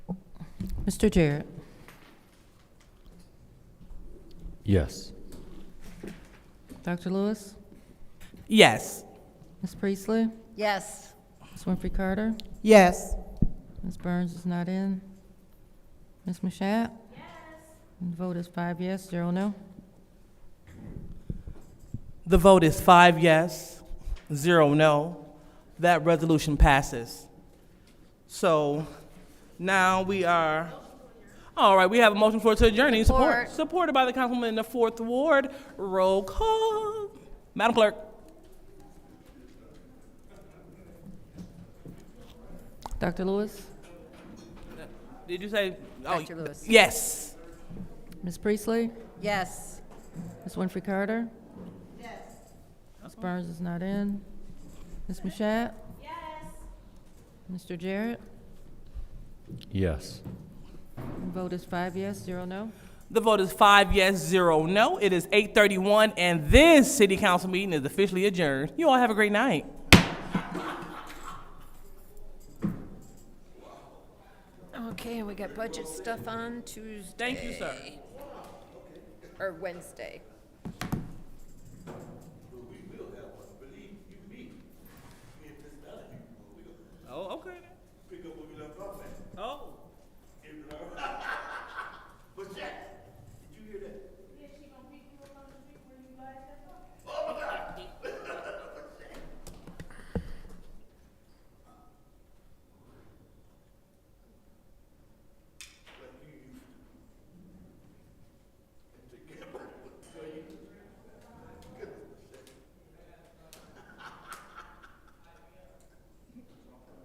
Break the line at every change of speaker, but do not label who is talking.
Mr. Jarrett.
Yes.
Dr. Lewis.
Yes.
Ms. Priestley.
Yes.
Ms. Winfrey Carter.
Yes.
Ms. Burns is not in. Ms. Mashat? Yes. And the vote is five yes, zero no.
The vote is five yes, zero no. That resolution passes. So now we are, all right, we have a motion for it to adjourn. Any support?
Support.
Supported by the councilwoman in the fourth ward. Roll call. Madam Clerk.
Dr. Lewis?
Did you say? oh,
Dr. Lewis.
Yes.
Ms. Priestley?
Yes.
Ms. Winfrey Carter? Yes. Ms. Burns is not in. Ms. Mashat? Yes. Mr. Jarrett?
Yes.
And Vote is five yes, zero no.
The vote is five yes, zero no. It is 8:31, and this city council meeting is officially adjourned. You all have a great night.
Okay, and we got budget stuff on Tuesday
Thank you, sir.
or Wednesday.